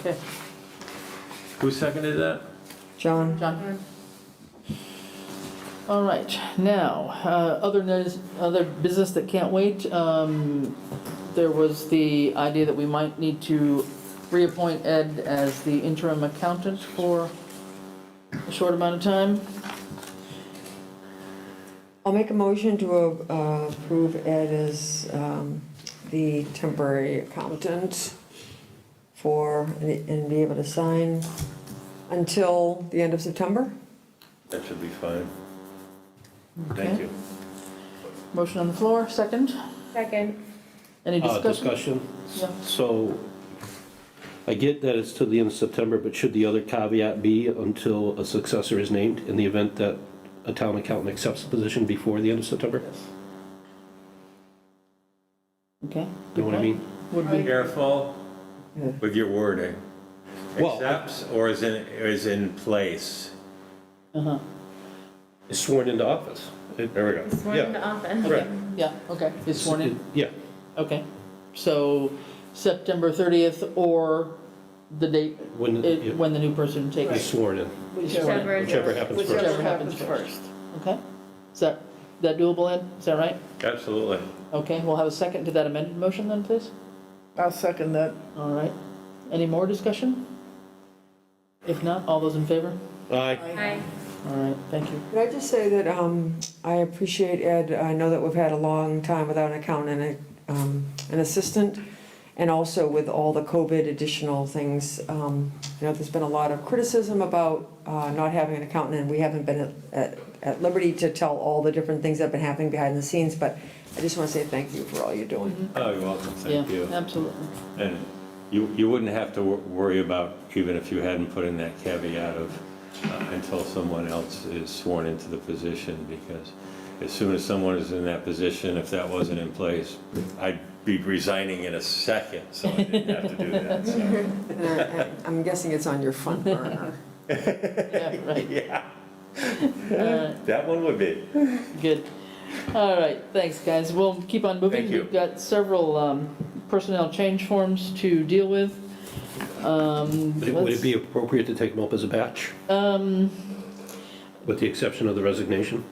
Okay, Who seconded that? John, John? All right, now, uh, other news, other business that can't wait, um, there was the idea that we might need to reappoint Ed as the interim accountant for a short amount of time. I'll make a motion to uh, approve Ed as um, the temporary accountant for, and be able to sign until the end of September. That should be fine. Thank you. Motion on the floor, second, Second. any Uh, discussion? Discussion? Yeah. So I get that it's to the end of September, but should the other caveat be until a successor is named in the event that a town accountant accepts the position before the end of September? Okay. You know what I mean? Would be, Careful with your wording. Well, I- Accepts or is in, is in place? uh-huh, Is Sworn into office. It- There we go. Sworn Yeah. into office. Right. yeah, okay, is sworn in, Yeah, okay. So September 30th or the date, when, yeah, it- when the new person is takes. sworn in, Whichever. whichever happens first. Whichever happens first. Okay, is that, that doable, Ed? Is that right? Absolutely. Okay, we'll have a second to that amended motion then, please? I'll second that. All right, any more discussion? If not, all those in favor? Aye. Aye. All right, thank you. Could I just say that um, I appreciate Ed, I know that we've had a long time without an accountant and a, um, an assistant, and also with all the COVID additional things, um, you know, there's been a lot of criticism about uh, not having an accountant, and we haven't been at- at at liberty to tell all the different things that have been happening behind the scenes, but I just want to say thank you for all you're doing. Oh, you're welcome. Thank Yeah, you. absolutely. And you, you wouldn't have to wor- worry about, even if you hadn't put in that caveat of uh, until someone else is sworn into the position, because as soon as someone is in that position, if that wasn't in place, I'd be resigning in a second, so I didn't have to do that, so. Mm-hmm. And I- I- I'm guessing it's on your front burner. Yeah, right, Yeah, all right, that one would be. good. All right, thanks, guys. We'll keep on moving. Thank you. We've got several um, personnel change forms to deal with. Um, Would it- Would let's- it be appropriate to take them up as a batch, Um, with the exception of the resignation?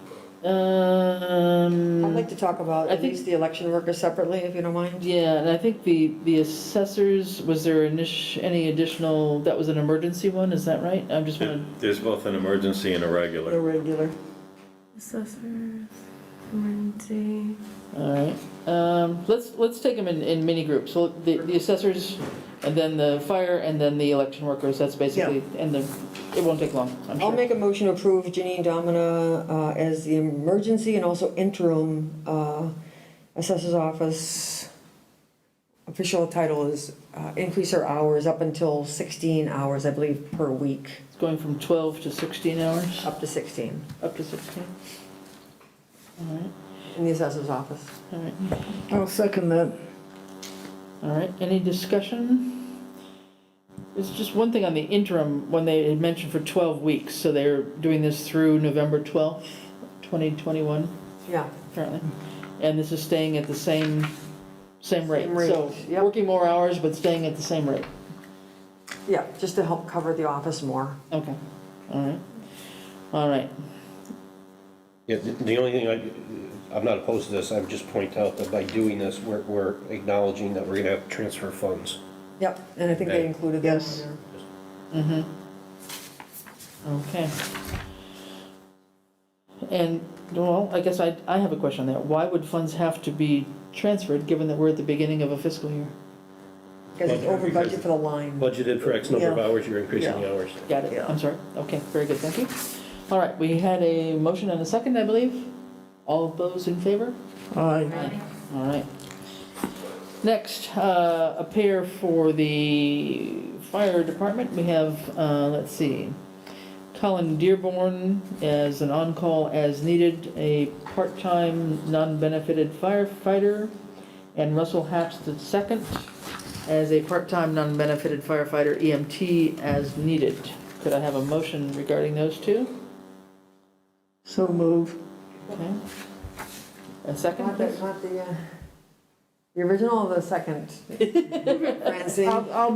um. I'd like to talk about I at think- least the election workers separately, if you don't mind. Yeah, and I think the, the assessors, was there init- any additional, that was an emergency one, is that right? I'm just wanna, There's both an emergency and a The regular. regular. Assessors, emergency. all right. Um, let's, let's take them in, in mini groups. So the, the assessors, and then the fire, and then the election workers, that's basically, and the, it won't take long, I'm I'll sure. make a motion to approve Janine Domina uh, as the emergency and also interim uh, assessor's office. Official title is uh, increase her hours up until 16 hours, I believe, per week, It's going from 12 to 16 hours, up to 16, up to 16. All right, in the assessor's office. all right. I'll second that. All right, any discussion? It's just one thing on the interim, when they had mentioned for 12 weeks, so they're doing this through November 12th, 2021, Yeah, apparently. And this is staying at the same, same rate. Same rate, So yep. working more hours, but staying at the same rate. yeah, just to help cover the office more. Okay, all right. All right, Yeah, the- the only thing, I, I'm not opposed to this, I would just point out that by doing this, we're, we're acknowledging that we're gonna have to transfer funds. Yep, and I think they Okay. included that. in Yes. there. okay. And, well, I guess I, I have a question on that. Why would funds have to be transferred, given that we're at the beginning of a fiscal year? Because it's over budget for the line. Budgeted for X number of Yeah. hours, you're increasing the hours. Got it, Yeah. I'm sorry. Okay, very good, thank you. All right, we had a motion and a second, I believe. All of those in favor? Aye. All right. Next, uh, a pair for the fire department. We have, uh, let's see, Colin Dearborn as an on-call as needed, a part-time, non-benefited firefighter, and Russell Hatch the second as a part-time, non-benefited firefighter EMT as needed. Could I have a motion regarding those two? So move. Okay. A second, Not the, please? not the, uh, the original or the second? Francine? I'll, I'll